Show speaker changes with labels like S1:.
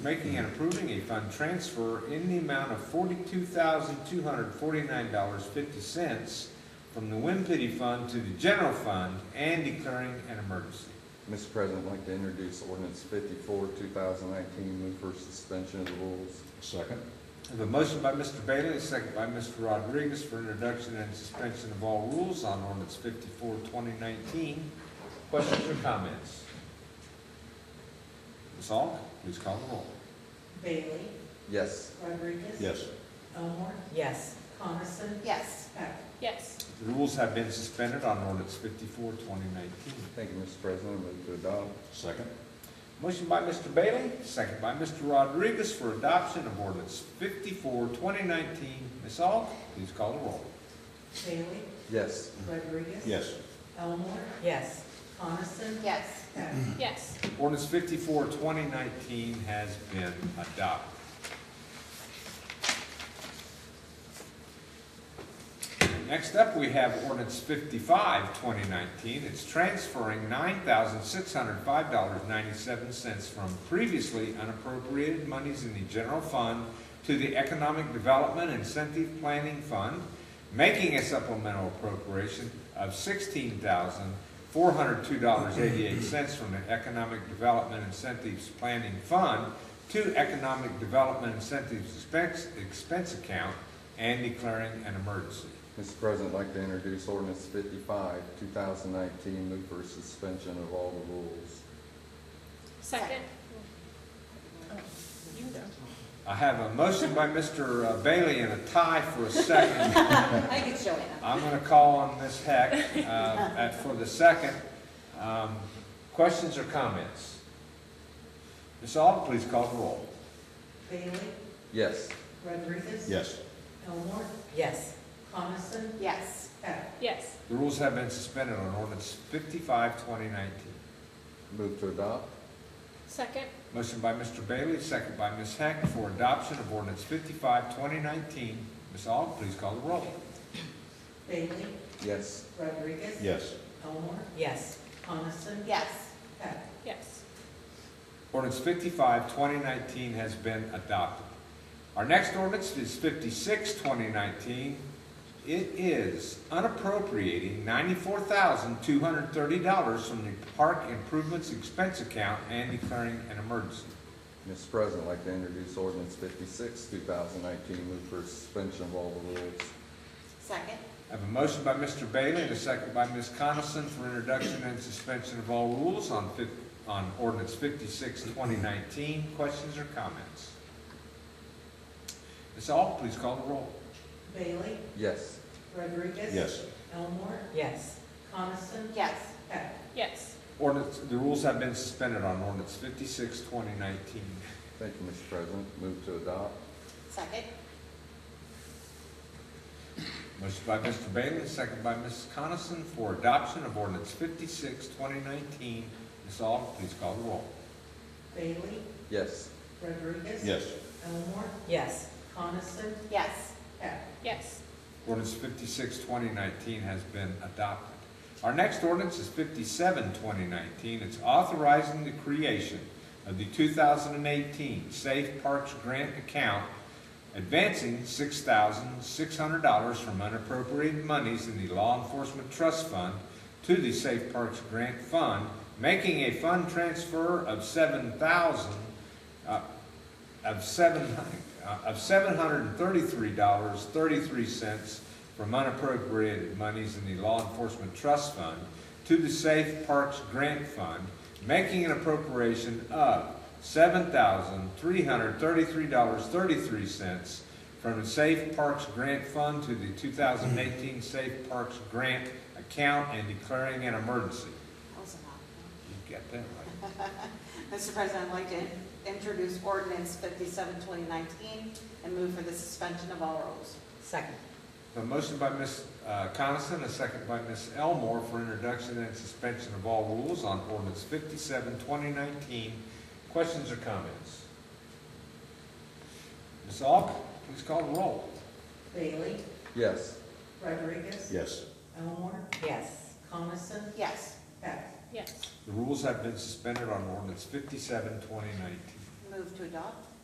S1: making and approving a fund transfer in the amount of forty-two thousand, two hundred forty-nine dollars, fifty cents from the Wind Pity Fund to the general fund and declaring an emergency.
S2: Mr. President, I'd like to introduce ordinance fifty-four, two thousand nineteen, move for suspension of the rules.
S3: Second.
S1: I have a motion by Mr. Bailey, a second by Mr. Rodriguez for introduction and suspension of all rules on ordinance 54 2019. Questions or comments? Ms. Aug, please call the roll.
S4: Bailey,
S2: Yes.
S4: Rodriguez.
S3: Yes.
S4: Elmore,
S5: Yes.
S4: Coniston,
S5: Yes.
S4: Heck.
S6: yes,
S1: The rules have been suspended on ordinance 54 2019.
S2: Thank you, Mr. President, I move to adopt.
S3: Second.
S1: Motion by Mr. Bailey, second by Mr. Rodriguez for adoption of ordinance 54 2019. Ms. Aug, please call the roll.
S4: Bailey,
S2: Yes.
S4: Rodriguez.
S3: Yes.
S4: Elmore,
S5: Yes.
S4: Coniston,
S5: Yes.
S4: Heck.
S6: yes.
S1: Ordinance 54 2019 has been adopted. Next up, we have ordinance 55 2019. It's transferring nine thousand six hundred five dollars ninety-seven cents from previously unappropriated monies in the general fund to the Economic Development Incentive Planning Fund, making a supplemental appropriation of sixteen thousand four hundred two dollars eighty-eight cents from the Economic Development Incentives Planning Fund to Economic Development Incentives Expense, Expense Account and declaring an emergency.
S2: Mr. President, I'd like to introduce ordinance fifty-five, two thousand nineteen, move for suspension of all the rules.
S6: Second,
S1: I have a motion by Mr. Bailey and a tie for a second.
S5: I can show it.
S1: I'm going to call on Ms. Heck uh, at- for the second. Um, Questions or comments? Ms. Aug, please call the roll.
S4: Bailey,
S2: Yes.
S4: Rodriguez.
S3: Yes.
S4: Elmore,
S5: Yes.
S4: Coniston,
S5: Yes.
S4: Heck.
S6: yes,
S1: The rules have been suspended on ordinance 55, 2019.
S2: Move to adopt.
S6: second,
S1: Motion by Mr. Bailey, second by Ms. Heck for adoption of ordinance 55, 2019. Ms. Aug, please call the roll.
S4: Bailey,
S2: Yes.
S4: Rodriguez.
S3: Yes.
S4: Elmore,
S5: Yes.
S4: Coniston,
S5: Yes.
S4: Heck.
S6: yes,
S1: Ordinance 55, 2019 has been adopted. Our next ordinance is 56, 2019. It is unappropriating ninety-four thousand, two hundred and thirty dollars from the park improvements expense account and declaring an emergency.
S2: Mr. President, I'd like to introduce ordinance fifty-six, two thousand nineteen, move for suspension of all the rules.
S5: Second?
S1: I have a motion by Mr. Bailey and a second by Ms. Coniston for introduction and suspension of all rules on fif, on ordinance 56, 2019. Questions or comments? Ms. Aug, please call the roll.
S4: Bailey,
S2: Yes.
S4: Rodriguez.
S3: Yes.
S4: Elmore,
S5: Yes.
S4: Coniston,
S5: Yes.
S4: Heck.
S6: yes,
S1: Ordinance, the rules have been suspended on ordinance 56, 2019.
S2: Thank you, Mr. President, move to adopt.
S5: Second?
S1: Motion by Mr. Bailey, second by Ms. Coniston for adoption of ordinance 56, 2019. Ms. Aug, please call the roll.
S4: Bailey,
S2: Yes.
S4: Rodriguez.
S3: Yes.
S4: Elmore,
S5: Yes.
S4: Coniston,
S5: Yes.
S4: Heck.
S6: yes,
S1: Ordinance 56, 2019 has been adopted. Our next ordinance is 57, 2019. It's authorizing the creation of the 2018 Safe Parks Grant Account, advancing $6,600 from unappropriated monies in the Law Enforcement Trust Fund to the Safe Parks Grant Fund, making a fund transfer of 7,000, uh, of seven, uh, of seven hundred and thirty-three dollars, thirty-three cents from unappropriated monies in the Law Enforcement Trust Fund to the Safe Parks Grant Fund, making an appropriation of seven thousand, three hundred thirty-three dollars, thirty-three cents from the Safe Parks Grant Fund to the two thousand eighteen Safe Parks Grant account and declaring an emergency. You got that right.
S7: Mr. President, I'd like to introduce ordinance 57, 2019, and move for the suspension of all rules.
S5: Second?
S1: A motion by Ms. uh, Coniston, a second by Ms. Elmore for introduction and suspension of all rules on ordinance 57, 2019. Questions or comments? Ms. Aug, please call the roll.
S4: Bailey,
S2: Yes.
S4: Rodriguez.
S3: Yes.
S4: Elmore,
S5: Yes.
S4: Coniston,
S7: Yes,
S4: Heck.
S6: yes,
S1: The rules have been suspended on ordinance 57, 2019.
S7: move Move to adopt.